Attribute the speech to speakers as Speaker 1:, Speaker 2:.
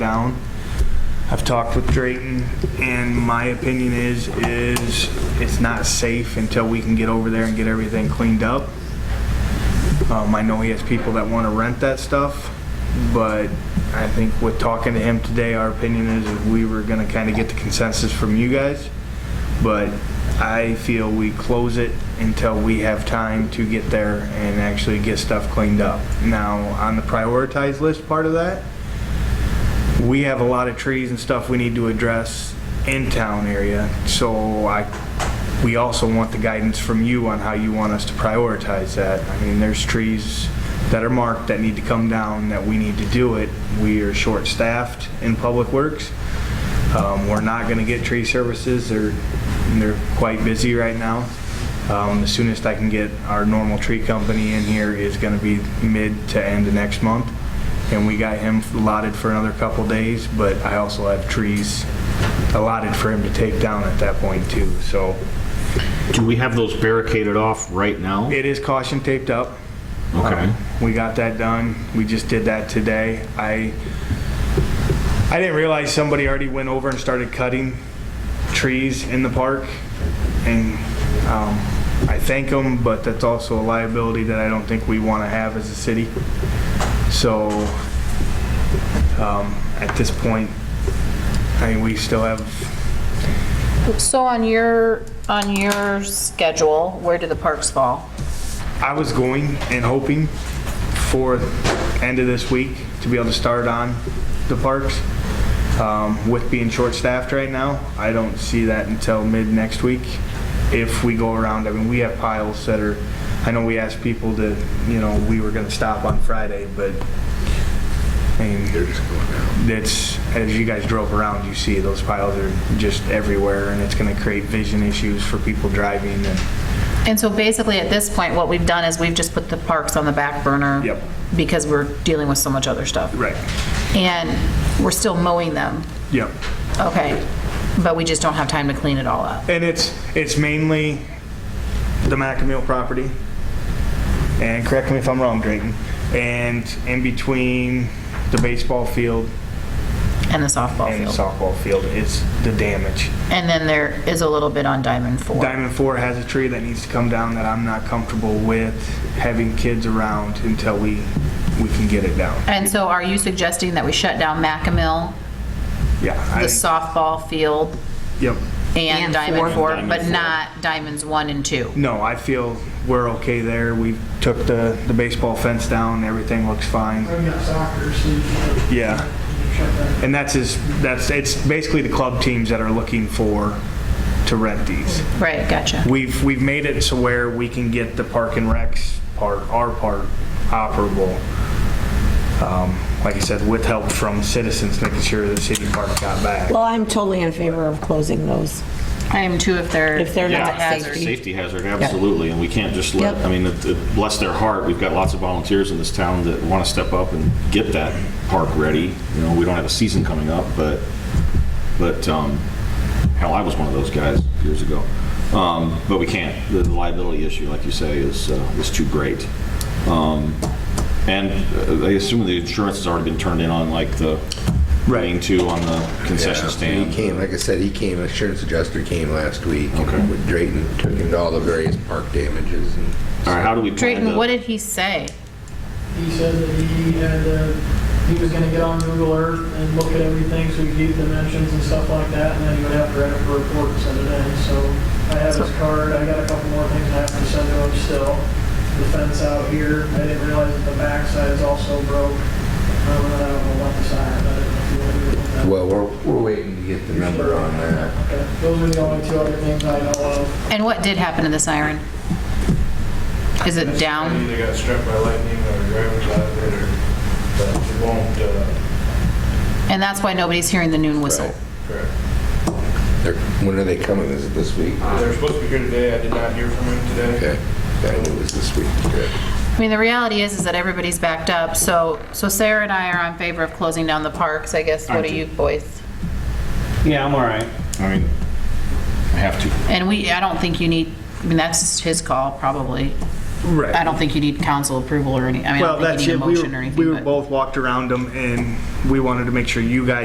Speaker 1: down. I've talked with Drayton, and my opinion is, is it's not safe until we can get over there and get everything cleaned up. Um, I know he has people that want to rent that stuff, but I think with talking to him today, our opinion is that we were going to kind of get the consensus from you guys. But I feel we close it until we have time to get there and actually get stuff cleaned up. Now, on the prioritized list part of that, we have a lot of trees and stuff we need to address in town area, so I, we also want the guidance from you on how you want us to prioritize that. I mean, there's trees that are marked that need to come down, that we need to do it. We are short-staffed in Public Works. Um, we're not gonna get tree services, they're, they're quite busy right now. Um, the soonest I can get our normal tree company in here is gonna be mid to end of next month and we got him allotted for another couple days, but I also have trees allotted for him to take down at that point too, so
Speaker 2: Do we have those barricaded off right now?
Speaker 1: it is caution taped up.
Speaker 2: Okay.
Speaker 1: Um, We got that done, we just did that today. I, I didn't realize somebody already went over and started cutting trees in the park, and um, I thank them, but that's also a liability that I don't think we want to have as a city. So, um, at this point, I mean, we still have,
Speaker 3: So on your, on your schedule, where do the parks fall?
Speaker 1: I was going and hoping for end of this week to be able to start on the parks. Um, with being short-staffed right now, I don't see that until mid next week. If we go around, I mean, we have piles that are, I know we asked people to, you know, we were gonna stop on Friday, but I mean, that's, as you guys drove around, you see those piles are just everywhere and it's gonna create vision issues for people driving and
Speaker 3: And so basically, at this point, what we've done is we've just put the parks on the back burner.
Speaker 1: Yep.
Speaker 3: Because we're dealing with so much other stuff.
Speaker 1: Right.
Speaker 3: And we're still mowing them,
Speaker 1: Yep.
Speaker 3: okay, but we just don't have time to clean it all up.
Speaker 1: And it's, it's mainly the Macamill property. And correct me if I'm wrong, Drayton. And in between the baseball field
Speaker 3: And the softball
Speaker 1: and the
Speaker 3: field.
Speaker 1: softball field, it's the damage.
Speaker 3: And then there is a little bit on Diamond Four.
Speaker 1: Diamond Four has a tree that needs to come down that I'm not comfortable with having kids around until we, we can get it down.
Speaker 3: And so are you suggesting that we shut down Macamill,
Speaker 1: Yeah. I
Speaker 3: the
Speaker 1: think-
Speaker 3: softball field,
Speaker 1: Yep.
Speaker 3: and Diamond Four, but
Speaker 2: Diamond Four.
Speaker 3: not Diamonds One and Two?
Speaker 1: No, I feel we're okay there. We took the, the baseball fence down, everything looks fine.
Speaker 4: I've got soccer, so you can
Speaker 1: Yeah.
Speaker 4: shut that
Speaker 1: And that's his, that's, it's basically the club teams that are looking for, to rent these.
Speaker 3: Right, gotcha.
Speaker 1: We've, we've made it to where we can get the park and recs part, our part, operable. Um, Like I said, with help from citizens, making sure the city park got back.
Speaker 5: Well, I'm totally in favor of closing those.
Speaker 3: I am too, if they're.
Speaker 5: If they're
Speaker 3: it's a
Speaker 5: not
Speaker 3: hazard.
Speaker 5: safety.
Speaker 2: Safety hazard, absolutely, and we can't just let,
Speaker 5: Yep.
Speaker 2: I mean, it- it- bless their heart, we've got lots of volunteers in this town that want to step up and get that park ready. You know, we don't have a season coming up, but, but, um, hell, I was one of those guys years ago. Um, But we can't, the liability issue, like you say, is, uh, is too great. Um, And uh, I assume the insurance has already been turned in on like the, running two on the concession stand.
Speaker 6: He came, like I said, he came, insurance adjuster came last week.
Speaker 2: Okay.
Speaker 6: With Drayton, took into all the various park damages and.
Speaker 2: All right, how do we plan
Speaker 3: Drayton, what
Speaker 2: to?
Speaker 3: did he say?
Speaker 4: He said that he had, uh, he was gonna get on Google Earth and look at everything, so he gave dimensions and stuff like that, and then he would have to write up a report and send it in, so I have his card, I got a couple more things I have to send to him still. The fence out here, I didn't realize that the backside is also broke, um, and I don't know about the side, I don't know if you want to do it with that.
Speaker 6: Well, we're, we're waiting to get the number on that.
Speaker 4: Okay, Those are the only two other things I know of.
Speaker 3: And what did happen to the siren? Is it
Speaker 7: I
Speaker 3: down?
Speaker 7: Either got struck by lightning or driver's out of it, or, but it won't, uh,
Speaker 3: And that's why nobody's hearing the noon whistle.
Speaker 7: correct.
Speaker 6: They're, when are they coming? Is it this week?
Speaker 7: They're supposed to be here today, I did not hear from him today.
Speaker 6: Okay, I knew it was this week. Good.
Speaker 3: I mean, the reality is, is that everybody's backed up, so, so Sarah and I are on favor of closing down the parks, I guess, what
Speaker 2: Aren't
Speaker 3: do you
Speaker 2: you?
Speaker 3: boys?
Speaker 8: Yeah, I'm all right.
Speaker 2: I mean, I have to.
Speaker 3: And we, I don't think you need, I mean, that's his call, probably.
Speaker 1: Right.
Speaker 3: I don't think you need council approval or any, I mean, I
Speaker 1: Well,
Speaker 3: don't think
Speaker 1: that's
Speaker 3: you
Speaker 1: it.
Speaker 3: need a
Speaker 1: We
Speaker 3: motion or
Speaker 1: were-
Speaker 3: anything.
Speaker 1: We were
Speaker 3: but-
Speaker 1: both walked around them and we wanted to make sure you guys